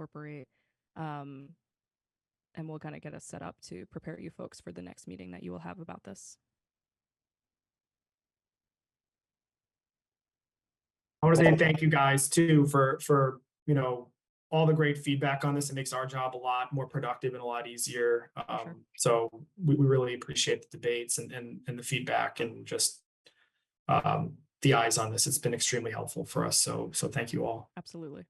incorporate. Um, and we'll kind of get us set up to prepare you folks for the next meeting that you will have about this. I want to say thank you guys too for, for, you know, all the great feedback on this. It makes our job a lot more productive and a lot easier. sure. Um, so we, we really appreciate the debates and, and, and the feedback and just um, the eyes on this. It's been extremely helpful for us. So, so thank you all. Absolutely.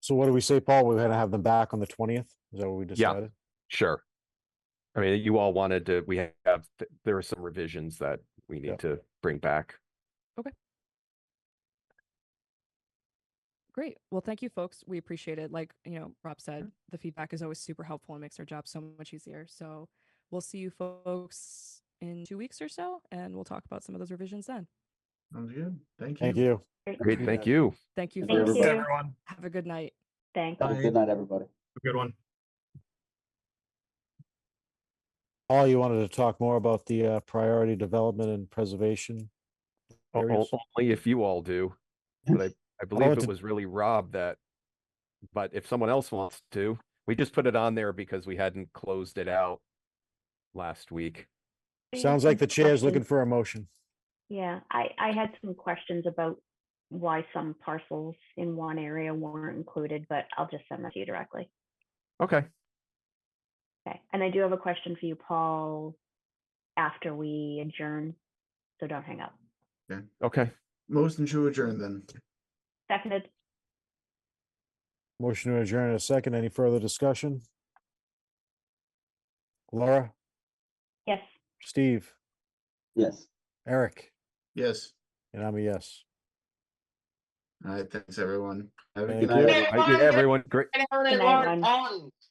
So what do we say, Paul? We're gonna have them back on the twentieth? Is that what we Yeah. decided? Sure. I mean, you all wanted to, we have, th- there are some revisions that we Yeah. need to bring back. Great. Well, thank you, folks. We appreciate it. Like, you know, Rob said, the feedback is always super helpful and makes our job so much easier. So we'll see you folks in two weeks or so, and we'll talk about some of those revisions then. Sounds good. Thank you. Thank you. Great, Yeah. thank you. Thank you, Thank folks. you. Everyone, Have a good night. Thank Bye. you. Good night, everybody. have a good one. Paul, you wanted to talk more about the uh, priority development and preservation? O- o- areas? Only if you all do. But I, I believe wanted it to- was really Rob that, but if someone else wants to, we just put it on there because we hadn't closed it out last week. oh. Sounds like the chair's looking for a motion. Yeah, I, I had some questions about why some parcels in one area weren't included, but I'll just send that to you directly. Okay, Okay, and I do have a question for you, Paul, after we adjourn, so don't hang up. okay. Motion to adjourn then. Seconded, Motion to adjourn in a second. Any further discussion? Laura, yes. Steve, Yes. Eric, Yes. and I'm a yes. All right. Thanks, everyone. Have a Thank good you. night. Thank you, everyone. Great, Good night, everyone.